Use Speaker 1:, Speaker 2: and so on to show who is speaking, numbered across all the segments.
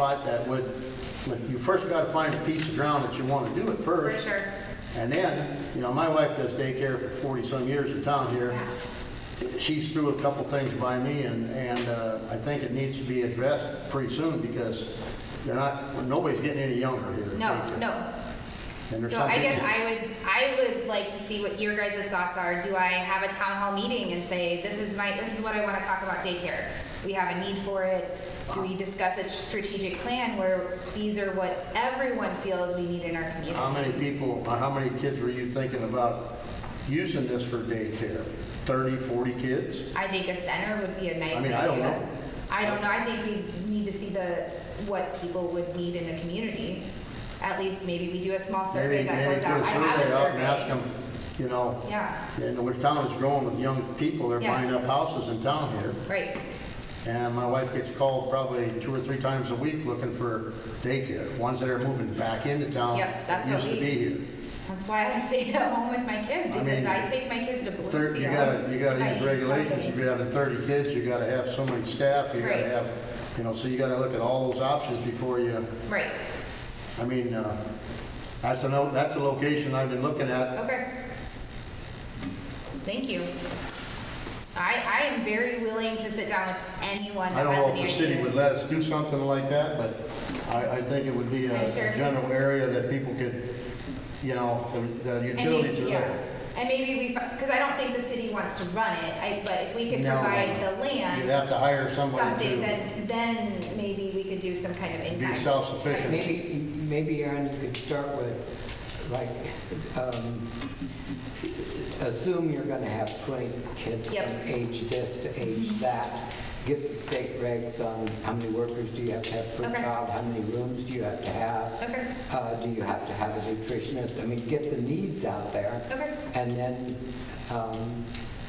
Speaker 1: spot that would, but you first got to find a piece of ground that you want to do it
Speaker 2: For
Speaker 1: first.
Speaker 2: sure.
Speaker 1: And then, you know, my wife does daycare for 40-some years in town here. She's threw a couple things by me, and, and uh, I think it needs to be addressed pretty soon because they're not, nobody's getting any younger here.
Speaker 2: No, no.
Speaker 1: And there's
Speaker 2: So I
Speaker 1: something-
Speaker 2: guess I would, I would like to see what your guys' thoughts are. Do I have a town hall meeting and say, this is my, this is what I want to talk about daycare? We have a need for it. Do we discuss a strategic plan where these are what everyone feels we need in our community?
Speaker 1: How many people, or how many kids were you thinking about using this for daycare? 30, 40 kids?
Speaker 2: I think a center would be a nice
Speaker 1: I mean,
Speaker 2: idea.
Speaker 1: I don't know.
Speaker 2: I don't know. I think we need to see the, what people would need in the community. At least maybe we do a small survey
Speaker 1: Maybe,
Speaker 2: that
Speaker 1: maybe
Speaker 2: goes
Speaker 1: put
Speaker 2: out.
Speaker 1: a
Speaker 2: I don't have a
Speaker 1: survey out and ask
Speaker 2: survey.
Speaker 1: them, you know,
Speaker 2: Yeah,
Speaker 1: And the town is growing with young people, they're
Speaker 2: Yes.
Speaker 1: buying up houses in town here.
Speaker 2: right.
Speaker 1: And my wife gets called probably two or three times a week looking for daycare, ones that are moving back into town.
Speaker 2: Yep, that's
Speaker 1: that
Speaker 2: what
Speaker 1: Used to
Speaker 2: we-
Speaker 1: be here.
Speaker 2: That's why I stay at home with my kids,
Speaker 1: I
Speaker 2: because
Speaker 1: mean,
Speaker 2: I take my kids to
Speaker 1: Thir-
Speaker 2: Bluefields.
Speaker 1: You gotta, you
Speaker 2: if I
Speaker 1: gotta
Speaker 2: need
Speaker 1: use regulations,
Speaker 2: something.
Speaker 1: you gotta have thirty kids, you gotta have so many staff, you gotta
Speaker 2: Right.
Speaker 1: have, you know, so you gotta look at all those options before you,
Speaker 2: Right,
Speaker 1: I mean, uh, that's a, no- that's a location I've been looking at
Speaker 2: okay. Thank you. I, I am very willing to sit down with anyone
Speaker 1: I
Speaker 2: that
Speaker 1: don't
Speaker 2: has
Speaker 1: know
Speaker 2: an
Speaker 1: if the city would
Speaker 2: idea.
Speaker 1: let us do something like that, but I, I think it would be a
Speaker 2: I'm sure
Speaker 1: a
Speaker 2: if
Speaker 1: general area that people could, you know, the the
Speaker 2: And maybe,
Speaker 1: utilities are
Speaker 2: yeah,
Speaker 1: there.
Speaker 2: and maybe we, because I don't think the city wants to run it, I, but if we could
Speaker 1: No.
Speaker 2: provide the
Speaker 1: You'd
Speaker 2: land,
Speaker 1: have to hire somebody
Speaker 2: something,
Speaker 1: to
Speaker 2: then, then maybe we could do some kind of
Speaker 1: be
Speaker 2: impact.
Speaker 1: self-sufficient.
Speaker 3: Maybe, maybe Aaron, you could start with, like, um, assume you're gonna have 20 kids
Speaker 2: Yep. Mm-hmm.
Speaker 3: from age this to age that. Get the state regs on how many workers do you have to have per
Speaker 2: Okay.
Speaker 3: child, how many rooms do you have to have?
Speaker 2: Okay.
Speaker 3: Uh, Do you have to have a nutritionist? I mean, get the needs out there.
Speaker 2: Okay.
Speaker 3: And then, um,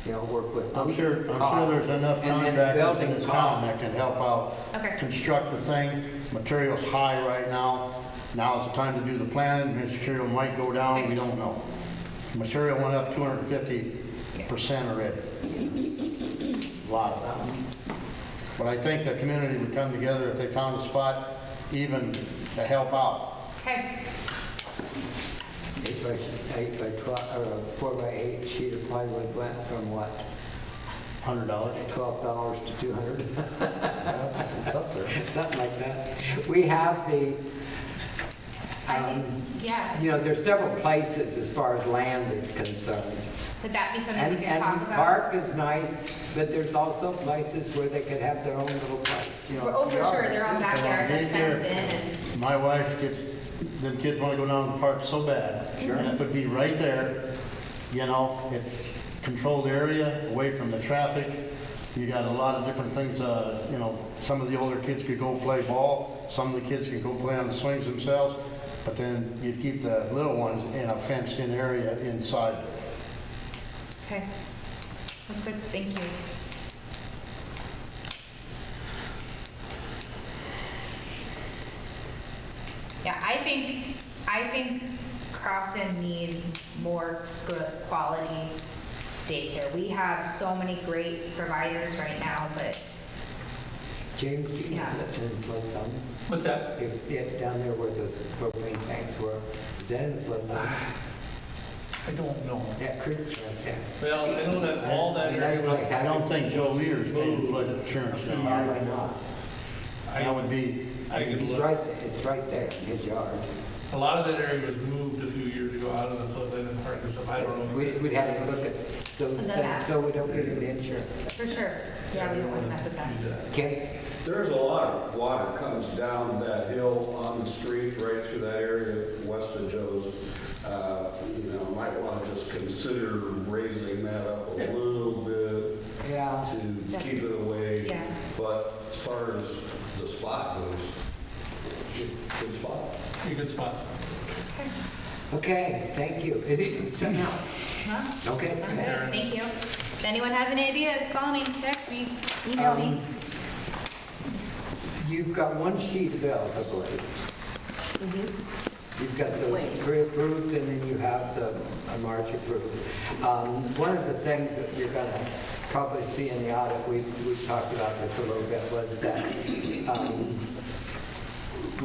Speaker 3: you know, work with.
Speaker 1: I'm
Speaker 3: those
Speaker 1: sure, I'm
Speaker 3: costs.
Speaker 1: sure there's enough
Speaker 3: And then
Speaker 1: contractors in
Speaker 3: building
Speaker 1: this
Speaker 3: costs.
Speaker 1: town that can help out.
Speaker 2: Okay.
Speaker 1: Construct the thing, material's high right now, now is the time to do the planning, material might go down, we don't know. Material went up two hundred and fifty percent already. Lot of
Speaker 3: Um,
Speaker 1: them. But I think the community would come together if they found a spot even to help out.
Speaker 2: Okay,
Speaker 3: Eight by, eight by 12, or a four by eight sheet of plywood went from what,
Speaker 1: Hundred dollars?
Speaker 3: $12 to 200,
Speaker 1: Up there.
Speaker 3: something like that. We have the,
Speaker 2: I think,
Speaker 3: Um,
Speaker 2: yeah,
Speaker 3: you know, there's several places as far as land is concerned.
Speaker 2: could that be something
Speaker 3: And,
Speaker 2: we could
Speaker 3: and
Speaker 2: talk about?
Speaker 3: park is nice, but there's also places where they could have their own little place, you know.
Speaker 2: Oh, for sure, their own backyard that's
Speaker 1: Daycare.
Speaker 2: fenced in and,
Speaker 1: My wife gets, the kids want to go down to the park so bad. Sure. And if it'd be right there, you know, it's controlled area, away from the traffic. You got a lot of different things, uh, you know, some of the older kids could go play ball, some of the kids could go play on the swings themselves, but then you'd keep the little ones in a fenced-in area inside.
Speaker 2: okay. That's it, thank you. Yeah, I think, I think Crofton needs more good quality daycare. We have so many great providers right now, but
Speaker 3: James, do you know
Speaker 2: Yeah.
Speaker 3: that's in flood zone?
Speaker 4: What's that?
Speaker 3: If, if down there where those propane tanks were, is that in flood zone?
Speaker 4: I don't know.
Speaker 3: That creek's right there.
Speaker 4: Well, I know that all that area,
Speaker 3: That's like
Speaker 4: was-
Speaker 1: I don't think Joe Leader's paying flood insurance now.
Speaker 3: Probably not.
Speaker 1: That would be,
Speaker 4: I could
Speaker 3: It's
Speaker 4: look.
Speaker 3: right, it's right there in his yard.
Speaker 4: A lot of that area was moved a few years ago out of the floodplain and park or something, I don't know.
Speaker 3: We'd, we'd have to look at those
Speaker 2: The
Speaker 3: things
Speaker 2: map.
Speaker 3: so we don't get an insurance.
Speaker 2: for sure, yeah, we don't want to mess with that.
Speaker 4: Do that.
Speaker 3: Can,
Speaker 5: There's a lot of water comes down that hill on the street, right through that area west of Joe's. Uh, You know, might want to just consider raising that up a little bit
Speaker 3: yeah,
Speaker 5: to
Speaker 2: That's-
Speaker 5: keep it away.
Speaker 2: yeah.
Speaker 5: But as far as the spot goes, good spot.
Speaker 4: Be a good spot.
Speaker 3: okay, thank you. Is it something else?
Speaker 2: Huh?
Speaker 3: Okay.
Speaker 2: Okay, Thank you. If anyone has any ideas, call me, text me, email me.
Speaker 3: Um, You've got one sheet of bills, I believe. You've got those pre-approved, and then you have the uh, March approved. Um, One of the things that you're going to probably see in the audit, we, we talked about this a little bit, was that um,